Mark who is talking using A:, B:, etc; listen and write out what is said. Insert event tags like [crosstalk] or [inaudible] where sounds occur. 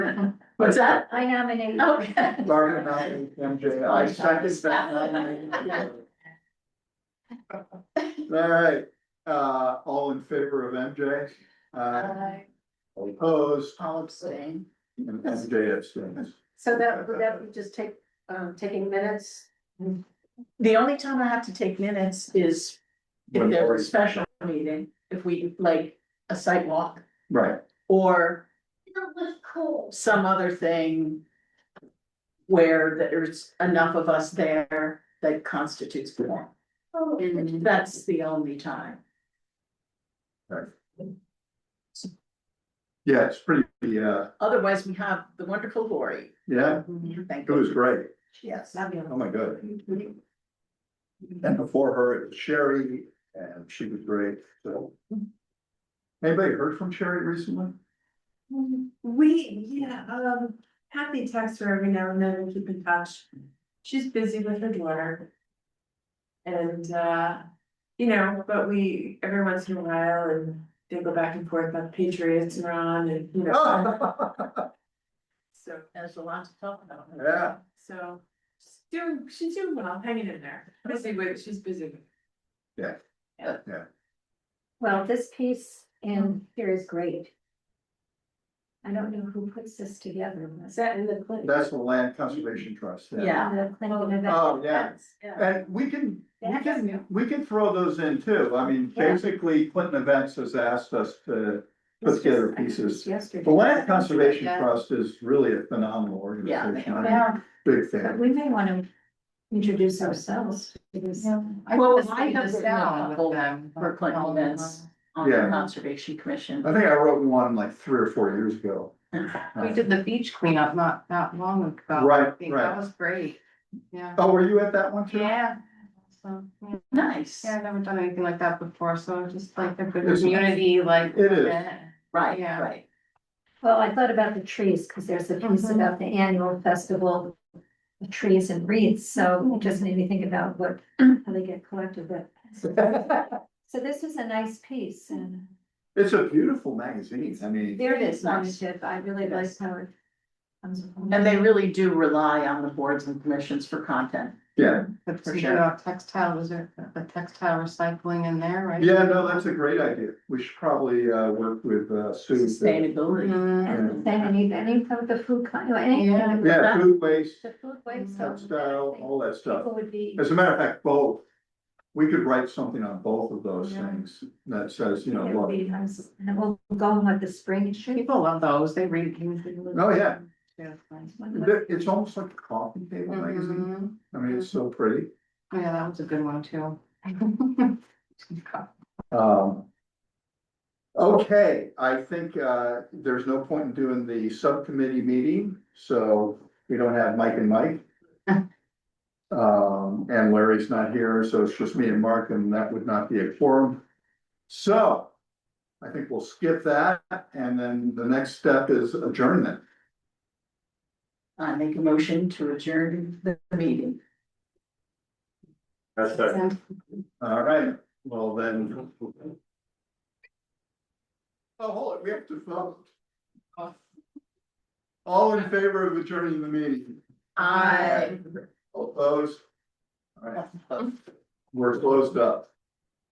A: [laughs] What's that? Oh.
B: I nominate.
A: Okay.
C: Talking about MJ, I second that. All right, uh, all in favor of MJ? Uh,
B: Uh,
C: opposed,
A: All abstain.
C: and MJ abstains.
B: So that, would that be just take, um, taking minutes?
A: The only time I have to take minutes is if
C: When
A: there's
C: already-
A: a special meeting, if we like a site walk
C: Right,
A: or
B: That was cool.
A: some other thing. Where there's enough of us there that constitutes form. That's the only time.
C: yeah, it's pretty, uh,
A: Otherwise, we have the wonderful Lori.
C: yeah,
A: Thank
C: it was
A: you.
C: great,
A: Yes.
C: oh my god. And before her, it was Sherry, and she was great, so. Anybody heard from Sherry recently?
D: We, yeah, um, Kathy texts her every now and then and keep in touch. She's busy with her daughter. And, uh, you know, but we, every once in a while, and they go back and forth about Patriots and on and, you
C: Oh.
D: know. So,
A: There's a lot to talk about.
C: Yeah.
D: so, she's doing, she's doing well, hanging in there, busy with, she's busy with.
B: Well, this piece in here is great. I don't know who puts this together. Is that in the Clinton?
C: That's the Land Conservation Trust.
A: Yeah.
B: The Clinton event?
C: Oh, yeah.
A: Yeah.
C: And we can, we
B: That's
C: can,
B: new.
C: we can throw those in too, I mean,
B: Yeah.
C: basically Clinton Events has asked us to put
B: It's just-
C: together
B: I noticed
C: pieces.
B: Yesterday.
C: The Land Conservation
B: Yeah.
C: Trust is really a phenomenal
A: Yeah, they
C: organization,
A: are.
C: I'm a
B: Yeah,
C: big
B: but
C: fan.
B: we may want to introduce ourselves to this.
A: Well, I have down for Clinton events on the
C: Yeah. Uh,
A: Conservation Commission.
C: I think I wrote one like three or four years ago. Uh,
E: We did the beach cleanup not, not long ago. I
C: Right,
E: think
C: right.
E: That was great, yeah.
C: Oh, were you at that one too?
E: Yeah. So, yeah,
A: Nice,
E: Yeah, I've never done anything like that before, so just like a good
C: It's-
E: community, like.
C: It is.
E: event.
A: right,
E: Yeah.
A: right.
B: Well, I thought about the trees, because there's a piece
E: Mhm.
B: about the annual festival of trees and reeds, so it just made me think about what, how they get collected, but. So this is a nice piece, and
C: [laughs] It's a beautiful magazine, I mean,
B: there it is,
A: Nice.
B: Margaret, I really like how it comes. along.
A: And they really do rely on the boards and commissions for content.
C: yeah,
E: But
A: For
E: you
A: sure.
E: know, textile, was there, the textile recycling in there, right?
C: yeah, no, that's a great idea, we should probably uh work with uh Sue. to-
A: Sustainability.
E: Mm,
B: And then any, any of the food, kind of,
E: Yeah.
B: anything,
C: Yeah, food waste,
B: the food waste. so
C: textile, all that stuff.
B: People would be,
C: As a matter of fact, both, we could write something on both of those
E: Yeah.
C: things that says, you know,
B: it would
C: look,
B: be nice, and we'll go on like the spring shoot.
E: People love those, they read. things.
C: Oh, yeah.
E: Yeah,
C: Oh.
E: it's nice.
C: th- it's almost like a coffee table magazine,
E: Mhm.
C: I mean, it's so pretty.
E: Yeah, that was a good one too. [laughs]
C: Um. Okay, I think uh there's no point in doing the subcommittee meeting, so we don't have Mike and Mike. Um, and Larry's not here, so it's just me and Mark, and that would not be a forum. So I think we'll skip that, and then the next step is adjournment.
A: I make a motion to adjourn the meeting.
F: That's right.
E: And
C: All right, well then. Oh, hold it, we have to vote. All in favor of adjourning the meeting?
A: I.
C: All Opposed? All right, we're closed up.